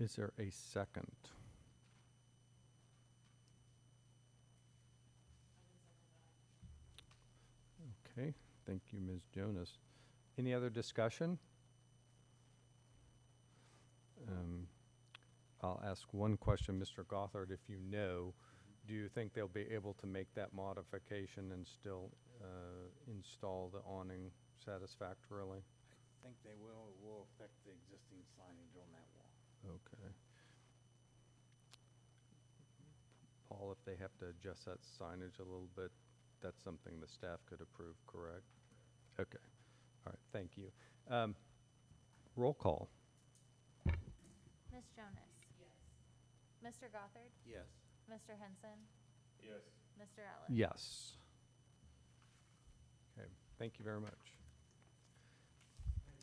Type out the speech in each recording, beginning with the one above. Is there a second? Okay, thank you, Ms. Jonas. Any other discussion? Um, I'll ask one question, Mr. Gothard, if you know, do you think they'll be able to make that modification and still uh, install the awning satisfactorily? I think they will, it will affect the existing signage on that wall. Okay. Paul, if they have to adjust that signage a little bit, that's something the staff could approve, correct? Okay, all right, thank you. Um, Roll call. Ms. Jonas? Yes. Mr. Gothard? Yes. Mr. Henson? Yes. Mr. Ellis? Yes. Okay, thank you very much.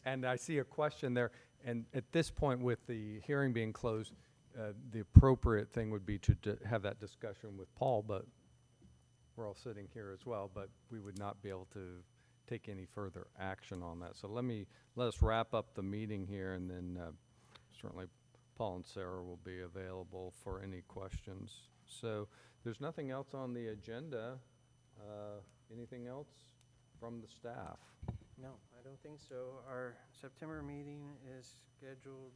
And I see a question there, and at this point, with the hearing being closed, uh, the appropriate thing would be to d- have that discussion with Paul, but we're all sitting here as well, but we would not be able to take any further action on that. So let me, let us wrap up the meeting here, and then uh, certainly Paul and Sarah will be available for any questions. So there's nothing else on the agenda. Uh, Anything else from the staff? No, I don't think so. Our September meeting is scheduled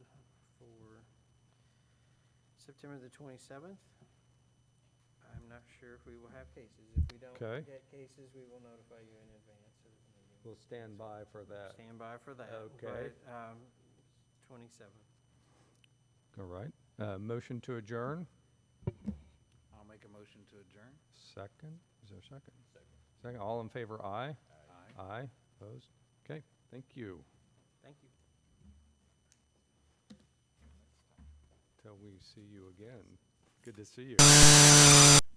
for September the 27th. I'm not sure if we will have cases. If we don't Okay. get cases, we will notify you in advance of the meeting. We'll stand by for that. Stand by for that. Okay. but, um, 27th. All right. Uh, Motion to adjourn? I'll make a motion to adjourn. Second? Is there a second? Second. Second. All in favor, aye? Aye. Aye. Opposed? Okay, thank you. Thank you. Till we see you again. Good to see you.